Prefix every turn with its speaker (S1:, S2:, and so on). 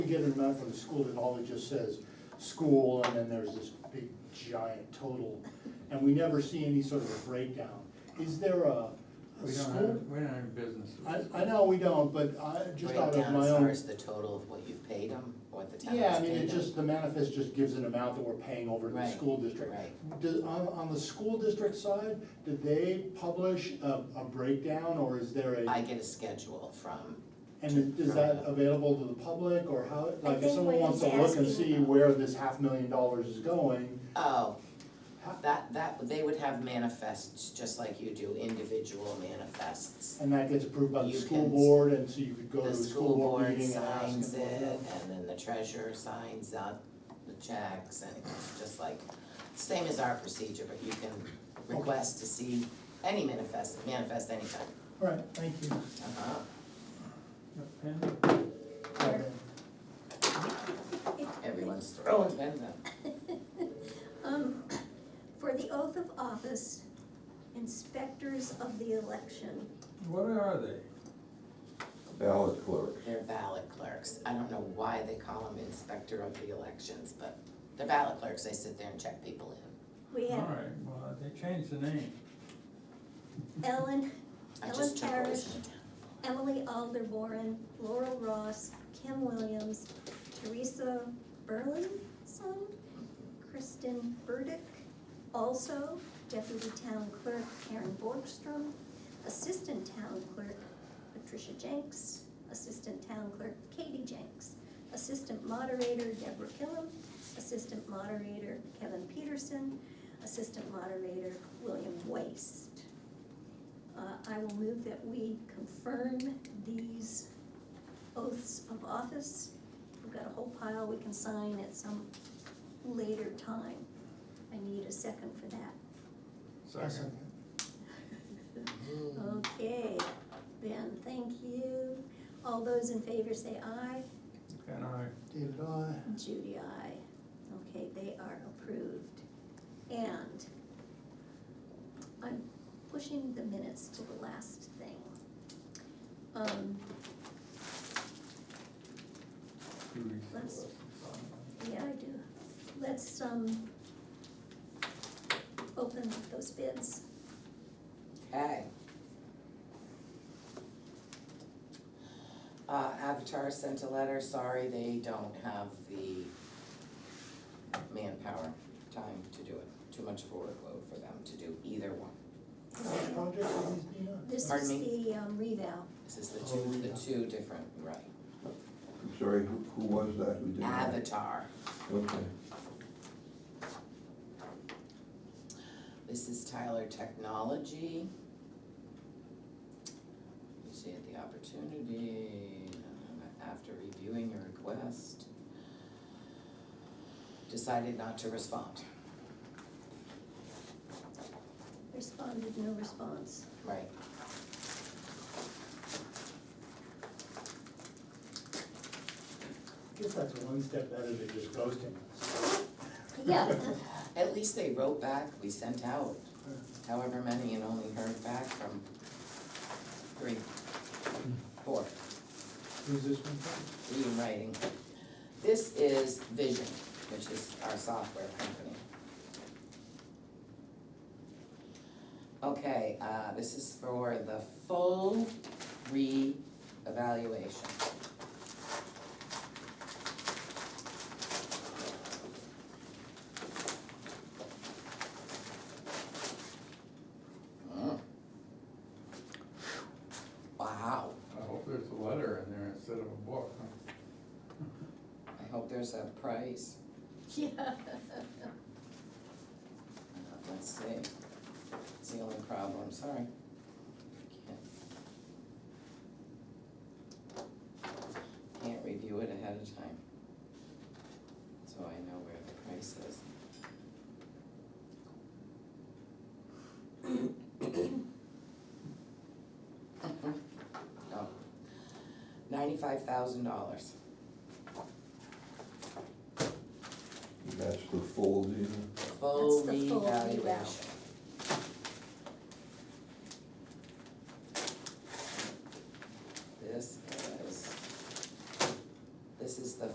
S1: get an amount from the school that all it just says, school, and then there's this big giant total, and we never see any sort of a breakdown. Is there a, a
S2: We don't have,
S1: school?
S2: we don't have businesses.
S1: I, I know we don't, but I, just out of
S3: Breakdown
S1: my
S3: as far
S1: own.
S3: as the total of what you paid them, what the town
S1: Yeah,
S3: has
S1: I mean,
S3: paid
S1: it
S3: them.
S1: just, the manifest just gives an amount that we're paying over to the
S3: Right,
S1: school district.
S3: right.
S1: Do- on, on the school district side, did they publish a, a breakdown, or is there a?
S3: I get a schedule from,
S1: And is that available to the public, or how, like, if
S4: think
S1: someone
S4: what
S1: wants to
S4: he's
S1: look and
S4: asking
S1: see
S4: about-
S1: where this half million dollars is going,
S3: oh,
S1: how-
S3: that, that, they would have manifests, just like you do, individual manifests.
S1: and that gets approved by the
S3: You
S1: school
S3: can-
S1: board, and so you could go to
S3: The
S1: a school board
S3: board
S1: meeting and ask
S3: signs
S1: them.
S3: it, and then the treasurer signs up the checks, and it's just like, same as our procedure, but you can request to see any manifest, manifest anytime.
S1: All right, thank you.
S3: Uh-huh.
S2: Pen?
S1: Okay.
S3: Everyone's throwing pens out.
S4: Um, for the oath of office, inspectors of the election,
S2: What are they?
S5: ballot clerk.
S3: They're ballot clerks. I don't know why they call them inspector of the elections, but they're ballot clerks. They sit there and check people in.
S4: we
S2: All
S4: have
S2: right, well, they changed the name.
S4: Ellen,
S3: I just took what was
S4: Ellis
S3: in town.
S4: Emily Alderborn, Laurel Ross, Kim Williams, Teresa Burleson, Kristen Burdick, also deputy town clerk Karen Borgstrom, assistant town clerk Patricia Jenks, assistant town clerk Katie Jenks, assistant moderator Deborah Killam, assistant moderator Kevin Peterson, assistant moderator William Waste. Uh, I will move that we confirm these oaths of office. We've got a whole pile we can sign at some later time. I need a second for that.
S2: Second.
S4: Okay, Ben, thank you. All those in favor say aye.
S2: And I,
S1: David, I.
S4: Judy, aye. Okay, they are approved. And I'm pushing the minutes to the last thing. Um,
S2: do these.
S4: Let's- Yeah, I do. Let's, um, open those bids.
S3: Okay. Uh, Avatar sent a letter. Sorry, they don't have the manpower time to do it. Too much of a workload for them to do either one.
S1: Which project are these being on?
S4: This is
S3: Pardon
S4: the um, revow.
S3: This is the
S1: Oh,
S3: two, the
S1: yeah.
S3: two different, right.
S5: I'm sorry, who, who was that? Who did that?
S3: Avatar.
S5: Okay.
S3: This is Tyler Technology. You see at the opportunity, uh, after reviewing your request, decided not to respond.
S4: Responded, no response.
S3: Right.
S1: I guess that's one step better than just ghosting.
S4: Yeah,
S3: At least they wrote back, we sent out however many and only heard back from three, four,
S1: Who's this one from?
S3: three in writing. This is Vision, which is our software company. Okay, uh, this is for the full re-evaluation. Mm. Wow,
S2: I hope there's a letter in there instead of a book. huh?
S3: I hope there's a price.
S4: yeah.
S3: Uh, Let's see, it's the only problem, sorry. Can't- Can't review it ahead of time. So I know where the price is. Oh, ninety-five thousand dollars,
S5: That's the full deal?
S3: full
S4: That's the full
S3: revaluation.
S4: revaluation.